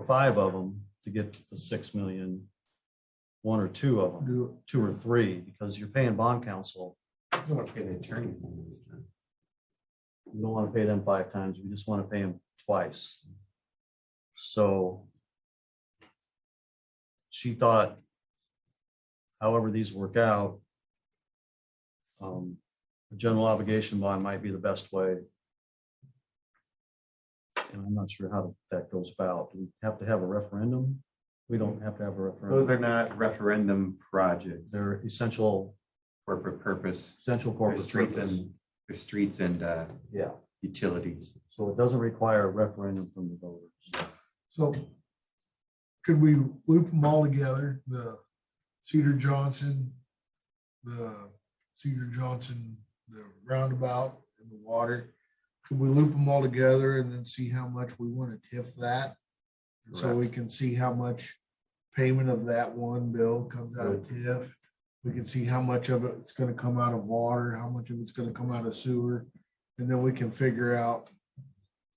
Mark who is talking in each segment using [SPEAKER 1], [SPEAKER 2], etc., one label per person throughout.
[SPEAKER 1] five of them to get to six million. One or two of them,
[SPEAKER 2] Do,
[SPEAKER 1] two or three, because you're paying bond counsel.
[SPEAKER 3] I don't want to pay the attorney.
[SPEAKER 1] We don't want to pay them five times. We just want to pay them twice. So she thought, however these work out, um, a general obligation bond might be the best way. And I'm not sure how that goes about. Do we have to have a referendum? We don't have to have a
[SPEAKER 3] Those
[SPEAKER 1] referendum.
[SPEAKER 3] are not referendum projects. They're
[SPEAKER 1] They're essential,
[SPEAKER 3] corporate purpose.
[SPEAKER 1] essential
[SPEAKER 3] There's
[SPEAKER 1] corporate
[SPEAKER 3] streets
[SPEAKER 1] purpose.
[SPEAKER 3] and, there's streets and uh,
[SPEAKER 1] Yeah,
[SPEAKER 3] utilities.
[SPEAKER 1] so it doesn't require a referendum from the voters.
[SPEAKER 2] so could we loop them all together, the Cedar Johnson, the Cedar Johnson, the roundabout and the water? Could we loop them all together and then see how much we want to TIF that? So we can see how much payment of that one bill comes out of TIF. We can see how much of it's gonna come out of water, how much of it's gonna come out of sewer, and then we can figure out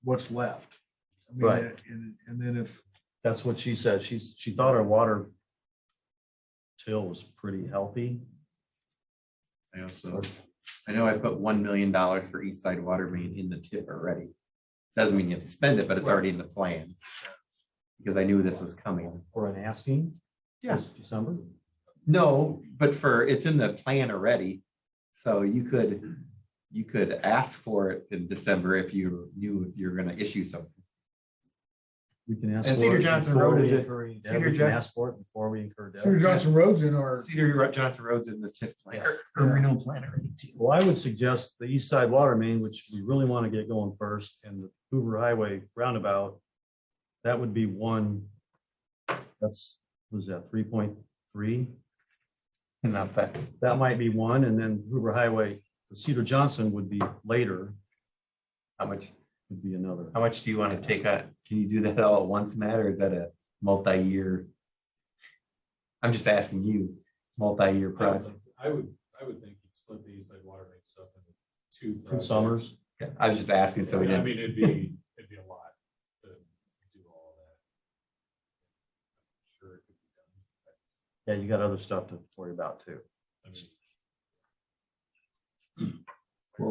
[SPEAKER 2] what's left. I mean,
[SPEAKER 1] Right.
[SPEAKER 2] And, and then if,
[SPEAKER 1] That's what she said. She's, she thought our water till was pretty healthy.
[SPEAKER 3] I also, I know I put one million dollars for East Side Water Main in the tip already. Doesn't mean you have to spend it, but it's already in the plan. Because I knew this was coming.
[SPEAKER 1] For an asking?
[SPEAKER 3] Yeah.
[SPEAKER 1] this December?
[SPEAKER 3] No, but for, it's in the plan already. So you could, you could ask for it in December if you knew you're gonna issue something.
[SPEAKER 1] We can ask.
[SPEAKER 3] And
[SPEAKER 1] for
[SPEAKER 3] Cedar
[SPEAKER 1] it
[SPEAKER 3] Johnson
[SPEAKER 1] before
[SPEAKER 3] Road
[SPEAKER 1] we
[SPEAKER 3] is it-
[SPEAKER 1] incur any debt.
[SPEAKER 3] Cedar
[SPEAKER 1] We can
[SPEAKER 3] Jon-
[SPEAKER 1] ask for it before we incur debt.
[SPEAKER 2] Cedar Johnson Road's in our,
[SPEAKER 3] Cedar Johnson Road's in the tip plan, or- or
[SPEAKER 2] Yeah.
[SPEAKER 3] renal plan already too.
[SPEAKER 1] Well, I would suggest the east side water main, which we really want to get going first, and the Hoover Highway roundabout. That would be one. That's, was that three point three?
[SPEAKER 3] Not that.
[SPEAKER 1] That might be one, and then Hoover Highway, Cedar Johnson would be later,
[SPEAKER 3] How much,
[SPEAKER 1] would be another.
[SPEAKER 3] how much do you want to take on? Can you do that all at once, Matt, or is that a multi-year? I'm just asking you, multi-year
[SPEAKER 4] I would
[SPEAKER 3] project.
[SPEAKER 4] think- I would, I would think you'd split the East Side Water Main stuff into two.
[SPEAKER 1] Two
[SPEAKER 4] projects.
[SPEAKER 1] summers.
[SPEAKER 3] Yeah, I was just asking, so we
[SPEAKER 4] I
[SPEAKER 3] didn't,
[SPEAKER 4] mean, it'd be, it'd be a lot to do all that. Sure, it could be done.
[SPEAKER 1] Yeah, you got other stuff to worry about too.
[SPEAKER 4] I mean,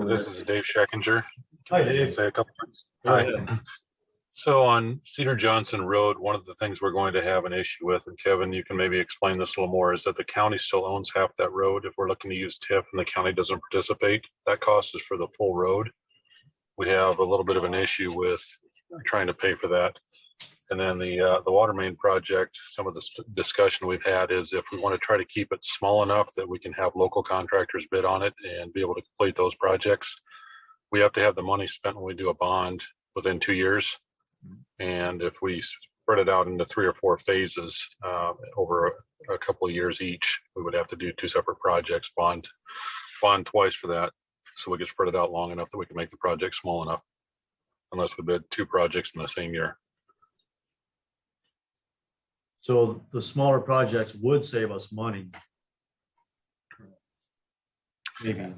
[SPEAKER 5] This is Dave Scheckinger.
[SPEAKER 1] Hi,
[SPEAKER 5] Can I
[SPEAKER 1] Dave.
[SPEAKER 5] Say a couple words.
[SPEAKER 1] Go
[SPEAKER 5] Hi. So on Cedar Johnson Road, one of the things we're going to have an issue with, and Kevin, you can maybe explain this a little more, is that the county still owns half that road. If we're looking to use TIF and the county doesn't participate, that cost is for the full road. We have a little bit of an issue with trying to pay for that. And then the, uh, the water main project, some of the s- discussion we've had is if we want to try to keep it small enough that we can have local contractors bid on it and be able to complete those projects, we have to have the money spent when we do a bond within two years. And if we spread it out into three or four phases uh, over a- a couple of years each, we would have to do two separate projects, bond, bond twice for that. So we could spread it out long enough that we can make the project small enough. Unless we bid two projects in the same year.
[SPEAKER 1] So the smaller projects would save us money. Maybe.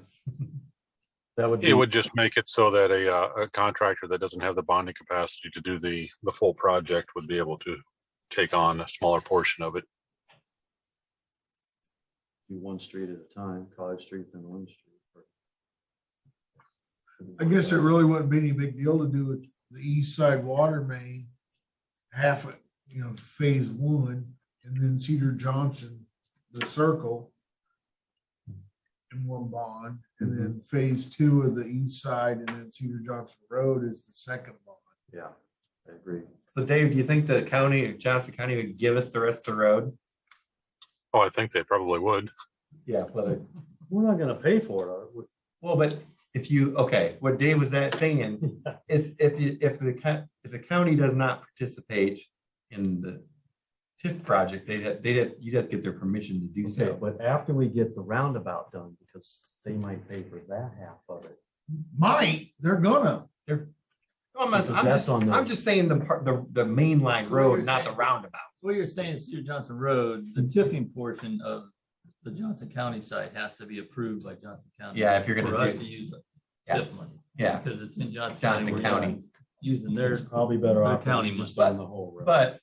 [SPEAKER 1] That would be,
[SPEAKER 5] It would just make it so that a, uh, a contractor that doesn't have the bonding capacity to do the, the full project would be able to take on a smaller portion of it.
[SPEAKER 1] do one street at a time, College Street then one street.
[SPEAKER 2] I guess it really wouldn't be any big deal to do with the east side water main. Half, it, you know, phase one, and then Cedar Johnson, the circle. In one bond, and then phase two of the east side, and then Cedar Johnson Road is the second bond.
[SPEAKER 1] Yeah, I agree.
[SPEAKER 3] so Dave, do you think the county, Johnson County would give us the rest of the road?
[SPEAKER 5] Oh, I think they probably would.
[SPEAKER 3] Yeah, whether,
[SPEAKER 1] We're not gonna pay for it. uh, are we?
[SPEAKER 3] well, but if you, okay, what Dave was that saying is if you, if the, co- if the county does not participate in the TIF project, they, they, you'd have to get their permission to do
[SPEAKER 1] Okay,
[SPEAKER 3] so.
[SPEAKER 1] but after we get the roundabout done, because they might pay for that half of it.
[SPEAKER 2] Might, they're gonna,
[SPEAKER 3] No, I'm not-
[SPEAKER 1] Because that's
[SPEAKER 3] I'm just-
[SPEAKER 1] on the-
[SPEAKER 3] I'm just saying the part, the, the main line
[SPEAKER 6] So what
[SPEAKER 3] road,
[SPEAKER 6] you're
[SPEAKER 3] not the
[SPEAKER 6] saying-
[SPEAKER 3] roundabout.
[SPEAKER 6] What you're saying, is Cedar Johnson Road, the tipping portion of the Johnson County site has to be approved by Johnson County.
[SPEAKER 3] Yeah, if you're
[SPEAKER 6] For
[SPEAKER 3] gonna
[SPEAKER 6] us
[SPEAKER 3] do,
[SPEAKER 6] to use
[SPEAKER 3] yes,
[SPEAKER 6] TIF money,
[SPEAKER 3] yeah,
[SPEAKER 6] because it's in Johnson.
[SPEAKER 3] Johnson
[SPEAKER 6] We're not
[SPEAKER 3] County.
[SPEAKER 6] Using their,
[SPEAKER 1] There's probably better
[SPEAKER 6] The
[SPEAKER 1] off
[SPEAKER 6] county
[SPEAKER 1] just
[SPEAKER 6] must-
[SPEAKER 1] on the whole road.
[SPEAKER 3] But